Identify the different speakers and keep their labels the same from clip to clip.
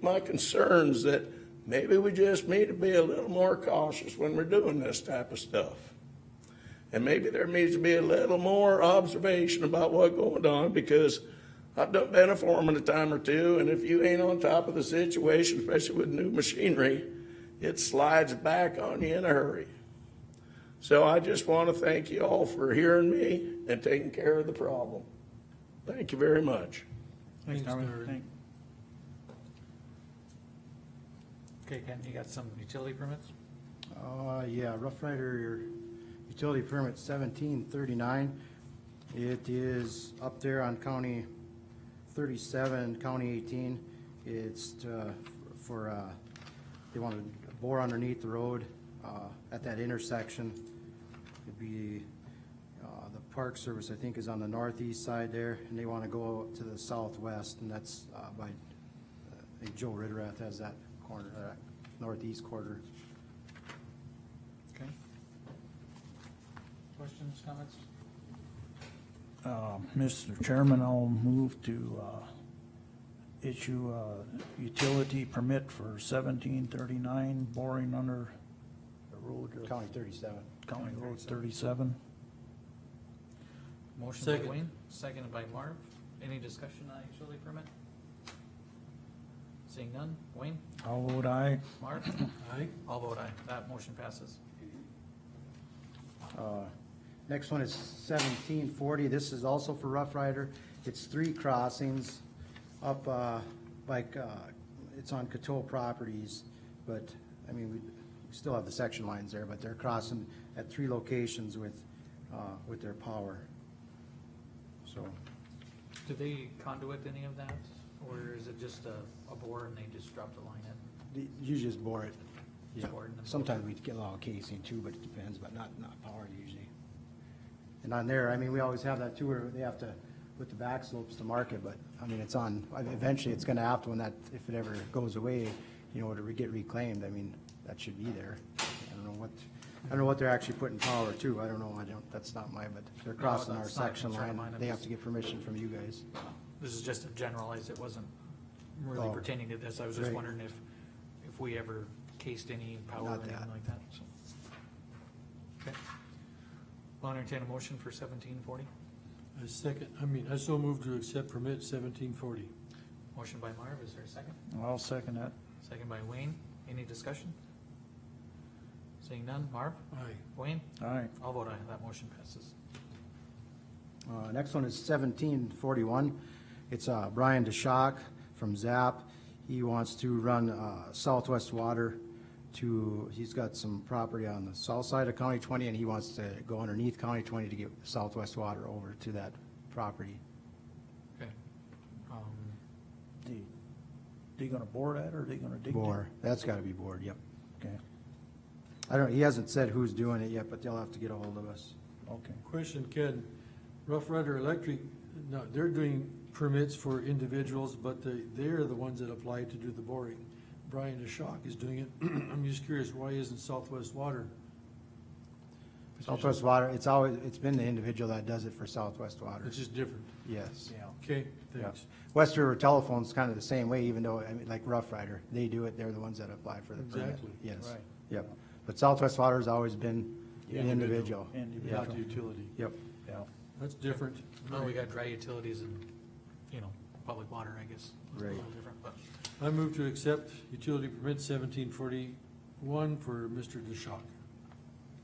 Speaker 1: my concerns that maybe we just need to be a little more cautious when we're doing this type of stuff. And maybe there needs to be a little more observation about what's going on, because I've done, been a foreman a time or two, and if you ain't on top of the situation, especially with new machinery, it slides back on you in a hurry. So I just want to thank you all for hearing me and taking care of the problem. Thank you very much.
Speaker 2: Thanks,
Speaker 3: Thanks, Darwin.
Speaker 2: Darwin.
Speaker 3: Thank-
Speaker 2: Okay, Ken, you got some utility permits?
Speaker 3: Uh, yeah, Rough Rider Utility Permit seventeen thirty-nine. It is up there on County thirty-seven, County eighteen. It's, uh, for, uh, they want to bore underneath the road, uh, at that intersection. It'd be, uh, the Park Service, I think, is on the northeast side there, and they want to go to the southwest, and that's, uh, by, I think Joe Ritterath has that corner, uh, northeast quarter.
Speaker 2: Okay. Questions, comments?
Speaker 4: Uh, Mr. Chairman, I'll move to uh, issue a utility permit for seventeen thirty-nine boring under the road of
Speaker 3: County thirty-seven.
Speaker 4: County Road thirty-seven.
Speaker 2: Motion by
Speaker 5: Second.
Speaker 2: Wayne, seconded by Marv. Any discussion on utility permit? Seeing none. Wayne,
Speaker 4: I'll vote aye.
Speaker 2: Marv,
Speaker 5: Aye.
Speaker 2: all vote aye. That motion passes.
Speaker 3: Uh, Next one is seventeen forty. This is also for Rough Rider. It's three crossings up, uh, like, uh, it's on Coteau properties, but, I mean, we we still have the section lines there, but they're crossing at three locations with, uh, with their power. So,
Speaker 2: Do they conduit any of that, or is it just a, a bore and they just drop the line in?
Speaker 3: the- you just bore it.
Speaker 2: Just
Speaker 3: Yeah.
Speaker 2: bore it and then-
Speaker 3: Sometimes we get a lot of casing too, but it depends, but not, not power usually. And on there, I mean, we always have that too, where they have to, with the back slopes to mark it, but, I mean, it's on, eventually it's gonna have to, when that, if it ever goes away, you know, to re- get reclaimed, I mean, that should be there. I don't know what, I don't know what they're actually putting power to, I don't know, I don't, that's not my, but they're crossing our
Speaker 2: that's not a
Speaker 3: section
Speaker 2: concern of
Speaker 3: line,
Speaker 2: mine, I'm
Speaker 3: they
Speaker 2: just-
Speaker 3: have to get permission from you guys.
Speaker 2: This is just a generalized, it wasn't really
Speaker 3: Oh.
Speaker 2: pertaining to this. I was just
Speaker 3: Right.
Speaker 2: wondering if, if we ever cased any power or
Speaker 3: Not
Speaker 2: anything
Speaker 3: that.
Speaker 2: like that, so. Okay. I'll entertain a motion for seventeen forty.
Speaker 5: I second, I mean, I so move to accept permit seventeen forty.
Speaker 2: Motion by Marv, is there a second?
Speaker 4: I'll second that.
Speaker 2: Second by Wayne. Any discussion? Seeing none. Marv?
Speaker 5: Aye.
Speaker 2: Wayne?
Speaker 4: Aye.
Speaker 2: I'll vote aye. That motion passes.
Speaker 3: Uh, Next one is seventeen forty-one. It's uh, Brian DeShock from ZAP. He wants to run uh, Southwest Water to, he's got some property on the south side of County twenty, and he wants to go underneath County twenty to get Southwest Water over to that property.
Speaker 2: Okay. Um,
Speaker 4: They, they gonna bore that or they gonna dig? it?
Speaker 3: Bore, that's gotta be bored, yep.
Speaker 4: Okay,
Speaker 3: I don't, he hasn't said who's doing it yet, but they'll have to get a hold of us.
Speaker 4: okay.
Speaker 5: Question, Ken, Rough Rider Electric, no, they're doing permits for individuals, but they, they're the ones that apply to do the boring. Brian DeShock is doing it. I'm just curious, why isn't Southwest Water?
Speaker 3: Southwest Water, it's always, it's been the individual that does it for Southwest Water,
Speaker 5: It's just different.
Speaker 3: yes.
Speaker 4: Yeah.
Speaker 5: Okay,
Speaker 3: Yeah.
Speaker 5: thanks.
Speaker 3: West River Telephone's kind of the same way, even though, I mean, like Rough Rider, they do it, they're the ones that apply for the permit.
Speaker 5: Exactly.
Speaker 3: Yes,
Speaker 4: Right.
Speaker 3: yep. But Southwest Water's always been
Speaker 5: Yeah.
Speaker 3: an individual.
Speaker 4: Individual.
Speaker 5: Not the utility.
Speaker 3: Yep,
Speaker 4: Yeah.
Speaker 5: That's different.
Speaker 2: well, we got dry utilities and, you know, public water, I guess. It's a
Speaker 3: Right.
Speaker 2: little different, but-
Speaker 5: I move to accept utility permit seventeen forty-one for Mr. DeShock.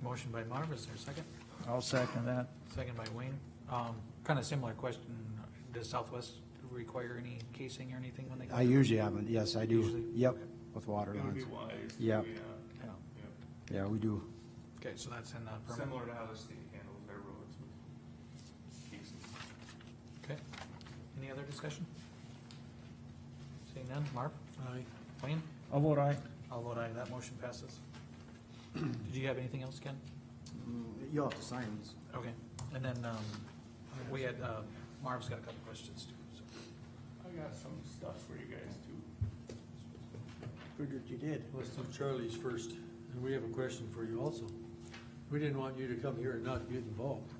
Speaker 2: Motion by Marv, is there a second?
Speaker 4: I'll second that.
Speaker 2: Second by Wayne. Um, kind of similar question. Does Southwest require any casing or anything when they? go
Speaker 3: I
Speaker 2: through?
Speaker 3: usually haven't, yes, I do,
Speaker 2: Usually?
Speaker 3: yep, with water
Speaker 6: It would
Speaker 3: lines.
Speaker 6: be wise. to
Speaker 3: Yep.
Speaker 6: be, uh,
Speaker 2: Yeah.
Speaker 6: yeah,
Speaker 3: Yeah, we do.
Speaker 2: Okay, so that's in the permit.
Speaker 6: Similar to how the state handles their roads with cases.
Speaker 2: Okay. Any other discussion? Seeing none. Marv?
Speaker 5: Aye.
Speaker 2: Wayne?
Speaker 4: I'll vote aye.
Speaker 2: I'll vote aye. That motion passes. Did you have anything else, Ken?
Speaker 3: You'll have to sign these.
Speaker 2: Okay. And then, um, we had, uh, Marv's got a couple questions too, so.
Speaker 6: I got some stuff for you guys too.
Speaker 4: Figured you did.
Speaker 5: Let's do Charlie's first, and we have a question for you also. We didn't want you to come here and not get involved.